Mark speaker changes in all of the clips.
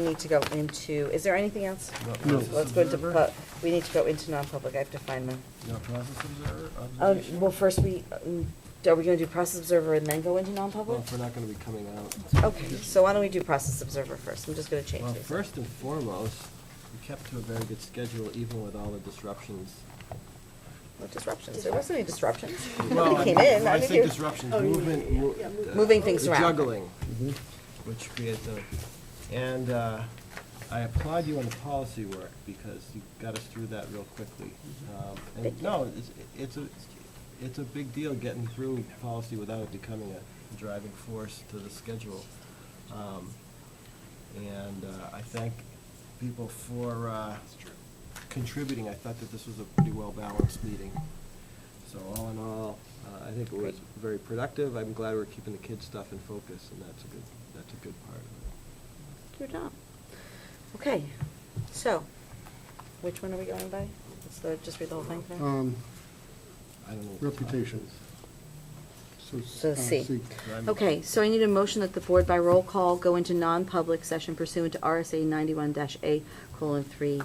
Speaker 1: We need to go into, is there anything else?
Speaker 2: No.
Speaker 1: Let's go into, pu- we need to go into non-public, I have to find my,
Speaker 2: No process observer,
Speaker 1: oh,
Speaker 2: observation?
Speaker 1: Um, well, first we, um, are we gonna do process observer and then go into
Speaker 2: Well,
Speaker 1: non-public?
Speaker 2: if we're not gonna be coming out.
Speaker 1: Okay, so why don't we do process observer first? I'm just gonna change
Speaker 2: Well,
Speaker 1: these.
Speaker 2: first and foremost, we kept to a very good schedule even with all the disruptions.
Speaker 1: No disruptions, there wasn't any disruptions.
Speaker 2: Well,
Speaker 1: Nobody came in.
Speaker 2: I
Speaker 1: think
Speaker 2: say
Speaker 1: you-
Speaker 2: disruptions, movement. mo- uh,
Speaker 1: Oh, Moving things
Speaker 2: the
Speaker 1: around.
Speaker 2: Juggling, which creates a, and uh, I applaud you on the policy work because you got us through that real quickly. Um,
Speaker 1: Thank
Speaker 2: And
Speaker 1: you.
Speaker 2: no, it's, it's a, it's a big deal getting through policy without it becoming a driving force to the schedule. Um, And uh, I thank people for uh, contributing. I thought that this was a pretty well-balanced meeting. So all in all, uh, I think it was
Speaker 1: Great.
Speaker 2: very productive. I'm glad we're keeping the kids' stuff in focus, and that's a good, that's a good part of it.
Speaker 1: You're not. Okay, so, which one are we going by? Let's go- just read the whole thing now?
Speaker 3: Um,
Speaker 2: I don't know. what the topic
Speaker 3: Reputation.
Speaker 1: So
Speaker 3: uh,
Speaker 1: C.
Speaker 2: is. I'm-
Speaker 1: Okay, so I need a motion that the board by roll call go into non-public session pursuant to RSA ninety-one dash A colon three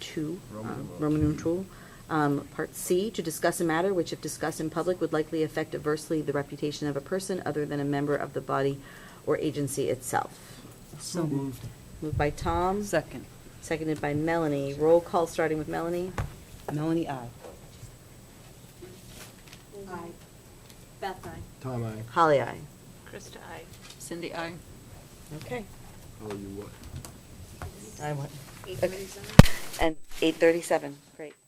Speaker 1: two,
Speaker 2: Roman
Speaker 1: um,
Speaker 2: numeral
Speaker 1: Roman
Speaker 2: two.
Speaker 1: numeral, um, part C, to discuss a matter which if discussed in public would likely affect adversely the reputation of a person other than a member of the body or agency itself.
Speaker 2: So moved.
Speaker 1: Moved by Tom.
Speaker 4: Second.
Speaker 1: Seconded by Melanie. Roll call, starting with Melanie.
Speaker 4: Melanie, I.
Speaker 5: Aye. Beth, aye.
Speaker 2: Tom, I,
Speaker 1: Holly, aye.
Speaker 5: Krista, aye.
Speaker 4: Cindy, I.
Speaker 1: Okay.
Speaker 2: oh, you what?
Speaker 1: I won.
Speaker 5: Eight thirty-seven?
Speaker 1: And eight thirty-seven, great.